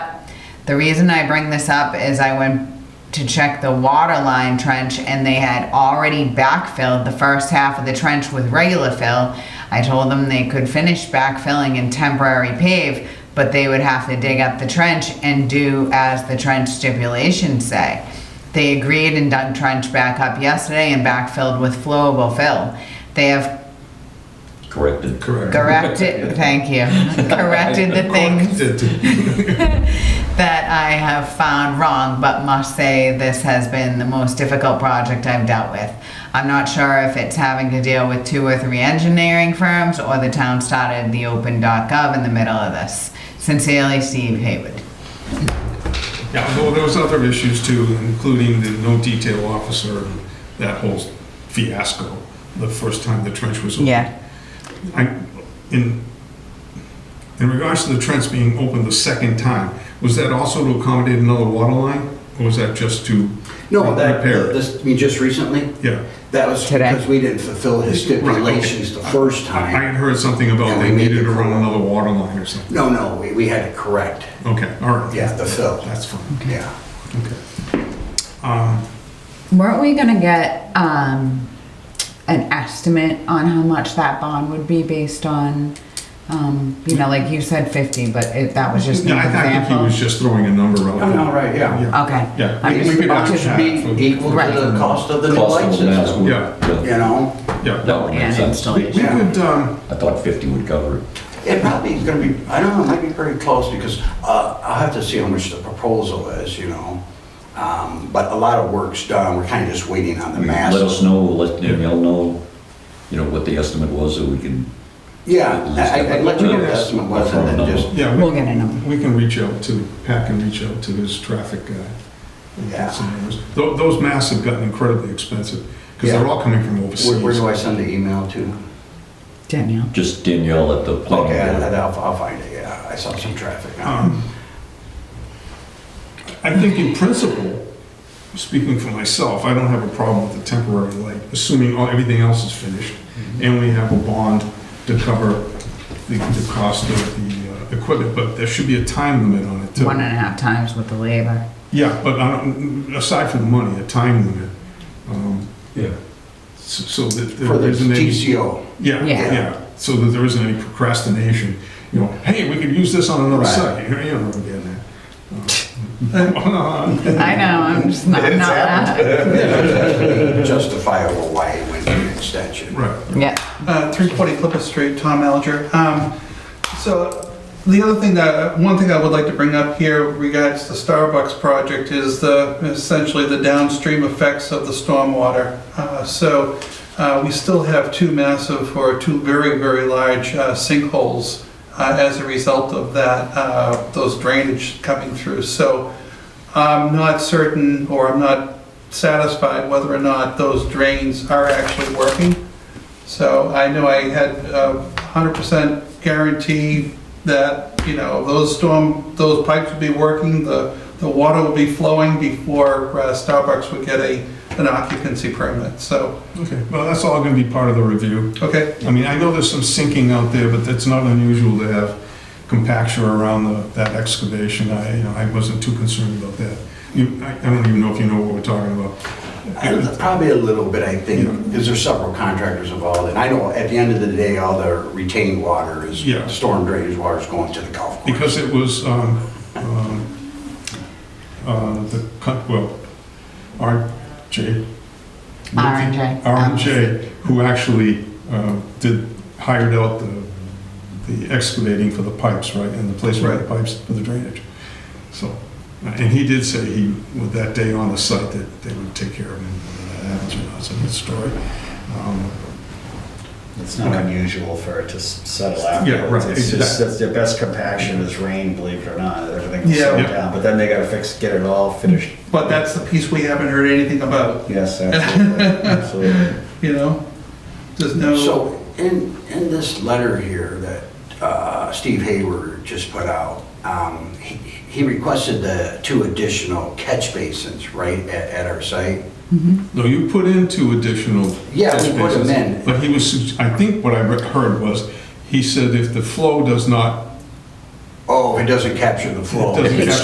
The reason I bring this up is I went to check the water line trench and they had already backfilled the first half of the trench with regular fill. I told them they could finish backfilling and temporary pave, but they would have to dig up the trench and do as the trench stipulations say. They agreed and dug trench back up yesterday and backfilled with flowable fill. They have Corrected. Correct. corrected, thank you, corrected the things that I have found wrong, but must say this has been the most difficult project I've dealt with. I'm not sure if it's having to deal with two or three engineering firms or the town started the open.gov in the middle of this. Sincerely, Steve Hayward. Yeah, well, there was other issues too, including the no detail officer, and that whole fiasco, the first time the trench was opened. I- In, in regards to the trench being opened the second time, was that also to accommodate another water line? Or was that just to No, that, repair it? this, I mean, just recently, Yeah. that was Today. because we didn't fulfill his Right, okay. stipulations the first I I had time. heard something about Yeah, they we made needed it to run for- another water line or something. No, no, we, we had to correct, Okay, all right. yeah, the fill, That's fine, yeah. okay. Um, Weren't we gonna get, um, an estimate on how much that bond would be based on, um, you know, like you said fifty, but it, that was just an Yeah, I thought that he example. was just throwing a number out. Oh, no, right, yeah. Okay. Yeah. I'm We- just- we could ask just Chad be for- Equal Right. to the cost of the new Cost light of the mask system, would- Yeah. you know? Oh. Yeah. That would make And sense. We we installation. Yeah. could, um, I thought 50 would cover it. It probably is gonna be, I don't know, it might be pretty close because uh, I'll have to see how much the proposal is, you know? Um, But a lot of work's done, we're kind of just waiting on the mass. Let us know, let Danielle know, you know, what the estimate was, so we can, Yeah, I- I- I'd let you know what the estimate was and then just, yeah, We'll we- get a number. we can reach out to, Pat can reach out to his traffic guy. and get Yeah. some numbers. Tho- Those masks have gotten incredibly expensive, because they're Yeah. all coming from where- where do I overseas. send the email to? Danielle. just Danielle at the Okay, I- planning board. I'll, I'll find it, yeah, I saw some traffic. Um, I think in principle, speaking for myself, I don't have a problem with the temporary light, assuming all, everything else is finished, Mm-hmm. and we have a bond to cover the, the cost of the uh, equipment, but there should be a time limit on it too. One and a half times with the labor. Yeah, but I don't- aside from the money, a time limit, um, Yeah. so so that For there the isn't any. TCO, Yeah, Yeah. yeah, so that there isn't any procrastination, you know, hey, we could use this on another Right. site, you know, you don't get that. Uh, I know, I'm just not, not that. justifiable why it went to an extension. Right, Yeah. Uh, 340 Clipper Street, Tom Alger. Um, So the other thing that, one thing I would like to bring up here regards the Starbucks project is the, essentially the downstream effects of the stormwater. Uh, So uh, we still have two massive, or two very, very large uh, sinkholes uh, as a result of that, uh, those drainage coming through. So I'm not certain, or I'm not satisfied whether or not those drains are actually working. So I know I had a hundred percent guarantee that, you know, those storm, those pipes would be working, the, the water would be flowing before uh, Starbucks would get a, an occupancy permit, so, okay, well, that's all gonna be part of the review. okay. I mean, I know there's some sinking out there, but that's not unusual to have compaction around the, that excavation, I, you know, I wasn't too concerned about that. You, I, I don't even know if you know what we're talking about. Uh, Probably a little bit, I think, because there's several contractors involved, and I know at the end of the day, all the retained water is, Yeah. storm drainage water is going to the golf course. Because it was, um, um, uh, the, co- well, RJ. R&J. RJ, who actually, um, did, hired out the, the excavating for the pipes, right? And the placement of the pipes for the drainage. So, and he did say he, with that day on the site, that they would take care of him, whether that happens or not, it's a good story. Um, It's not Okay. unusual for it to s- settle out. Yeah, right, It's just, exactly. that's their best compaction is rain, believe it or not, everything's Yeah. settled Yeah. down, but then they gotta fix, get it all finished. But that's the piece we haven't heard anything about, Yes, absolutely, absolutely. you know? There's no, So in, in this letter here that uh, Steve Hayward just put out, um, he he requested the two additional catch basins, right, at at our site? No, you put in two additional. Yeah, we catch put 'em basins, in. But he was, sug- I think what I re- heard was, he said if the flow does not, Oh, it doesn't capture the it flow. doesn't If it's capture